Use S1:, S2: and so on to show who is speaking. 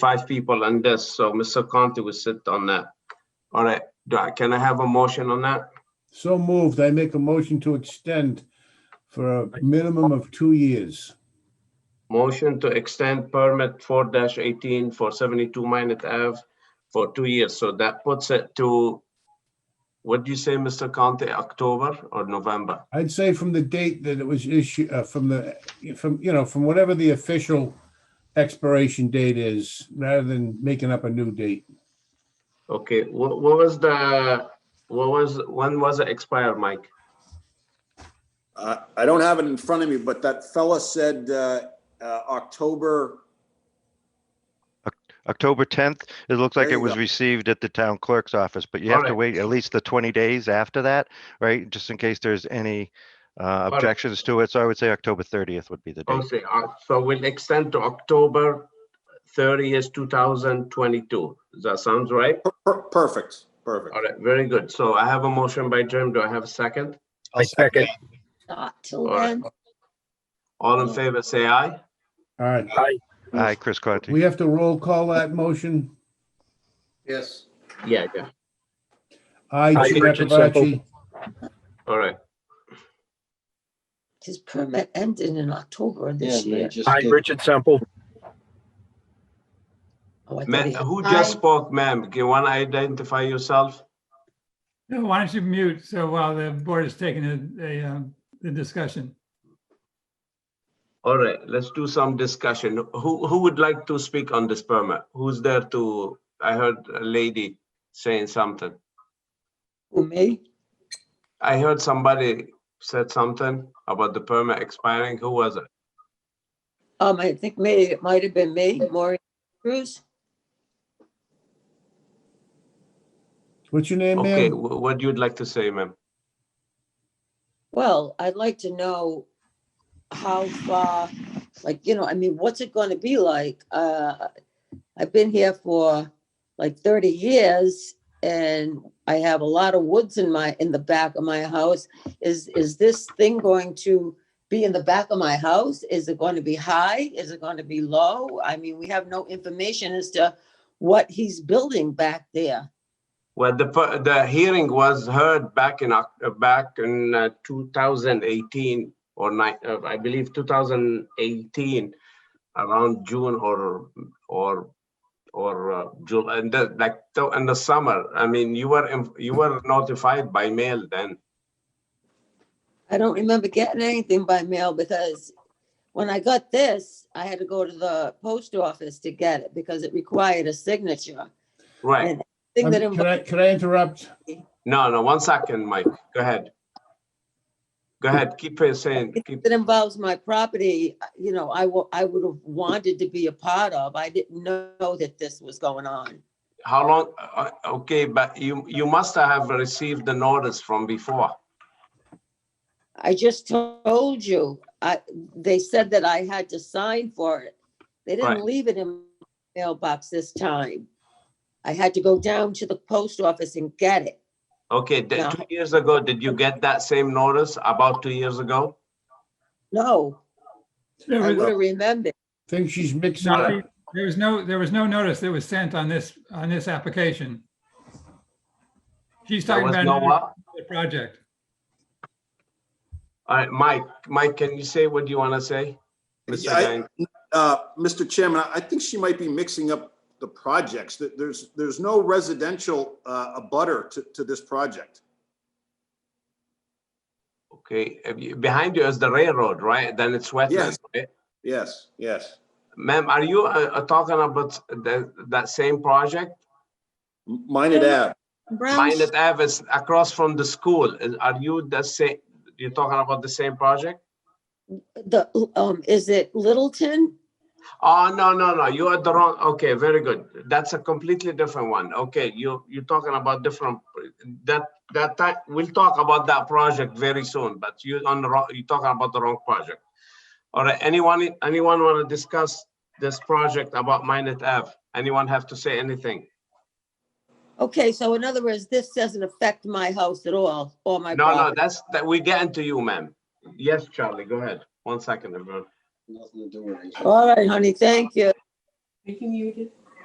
S1: five people on this, so Mr. Conti will sit on that. All right, do I, can I have a motion on that?
S2: So moved. I make a motion to extend for a minimum of two years.
S1: Motion to extend permit four eighteen for seventy-two Minot Ave for two years, so that puts it to, what do you say, Mr. Conti, October or November?
S2: I'd say from the date that it was issued, uh, from the, from, you know, from whatever the official expiration date is, rather than making up a new date.
S1: Okay, what, what was the, what was, when was it expire, Mike?
S3: Uh, I don't have it in front of me, but that fella said uh, uh, October,
S4: October tenth, it looks like
S3: There
S4: it
S3: you
S4: was
S3: go.
S4: received at the town clerk's office, but you have to
S1: Alright.
S4: wait at least the twenty days after that, right? Just in case there's any uh,
S1: Alright.
S4: objections to it. So I would say October thirtieth would be the date.
S1: Okay, uh, so we'll extend to October thirtieth, two thousand twenty-two. Does that sounds right?
S3: per- per- perfect, perfect.
S1: All right, very good. So I have a motion by Jim. Do I have a second?
S5: I second.
S6: Not till
S1: All right.
S7: uh,
S6: then.
S1: All in favor, say aye.
S2: All right,
S4: Aye, Chris Conti.
S2: we have to roll call that motion.
S3: Yes.
S1: Yeah, yeah.
S2: Aye,
S5: Aye,
S2: Chair
S5: Richard
S2: Kavachi.
S1: All right.
S6: His permit ended in October of
S7: Yeah,
S6: this
S7: they
S6: year.
S7: just
S5: Hi,
S7: did.
S5: Richard Semple.
S6: Oh, I
S1: Ma-
S6: thought he had
S1: who
S6: nine.
S1: just spoke, ma'am? Do you want to identify yourself?
S8: No, why don't you mute so while the board is taking a- a, um, the discussion?
S1: All right, let's do some discussion. Who, who would like to speak on this permit? Who's there to, I heard a lady saying something.
S6: Who, me?
S1: I heard somebody said something about the permit expiring. Who was it?
S6: Um, I think maybe it might have been me, Maureen Cruz.
S2: What's your name,
S1: Okay,
S2: ma'am?
S1: wh- what you'd like to say, ma'am?
S6: Well, I'd like to know how far, like, you know, I mean, what's it gonna be like? Uh, I've been here for like thirty years and I have a lot of woods in my, in the back of my house. Is, is this thing going to be in the back of my house? Is it going to be high? Is it going to be low? I mean, we have no information as to what he's building back there.
S1: Well, the, per- the hearing was heard back in, Oc- uh, back in uh, 2018 or nine, uh, I believe 2018, around June or, or, or uh, July, and the, like, so in the summer. I mean, you were, inf- you were notified by mail then.
S6: I don't remember getting anything by mail because when I got this, I had to go to the post office to get it because it required a signature.
S1: Right.
S6: Thing
S2: Um,
S6: that
S2: Can
S6: involved
S2: I, can I interrupt?
S1: No, no, one second, Mike. Go ahead. Go ahead. Keep uh, saying, keep,
S6: that involves my property, you know, I wa- I would have wanted to be a part of. I didn't know that this was going on.
S1: how long, uh, okay, but you, you must have received the notice from before.
S6: I just told you, I, they said that I had to sign for it. They
S1: Right.
S6: didn't leave it in mailbox this time. I had to go down to the post office and get it.
S1: Okay, th-
S6: No.
S1: two years ago, did you get that same notice about two years ago?
S6: No,
S8: There
S6: I
S8: was
S6: would have remembered.
S2: Think she's mixing up.
S8: nothing- there was no, there was no notice that was sent on this, on this application. She's
S1: There
S8: talking
S1: was
S8: about
S1: no
S8: another
S1: what?
S8: project.
S1: All right, Mike, Mike, can you say what you want to say? Mr.
S3: Yeah, I-
S1: Dang?
S3: Uh, Mr. Chairman, I- I think she might be mixing up the projects. That There's, there's no residential uh, abutter to, to this project.
S1: Okay, have you- behind you is the railroad, right? Then it's wetland.
S3: Yes.
S1: right?
S3: Yes, yes.
S1: Ma'am, are you uh, uh, talking about the- that same project?
S3: Minot Ave.
S6: Brown's,
S1: Minot Ave is across from the school. Is- Are you the same, you're talking about the same project?
S6: the, um, is it Littleton?
S1: Oh, no, no, no, you are the wrong, okay, very good. That's a completely different one. Okay, you, you're talking about different, that, that, ti- we'll talk about that project very soon, but you on the wrong, you're talking about the wrong project. All right, anyone, anyone want to discuss this project about Minot Ave? Anyone have to say anything?
S6: Okay, so in other words, this doesn't affect my house at all, or my
S1: No, no,
S6: property.
S1: that's, that, we get into you, ma'am. Yes, Charlie, go ahead. One second, everyone.
S7: Nothing to do with it.
S6: All right, honey, thank you.
S9: Are you muted?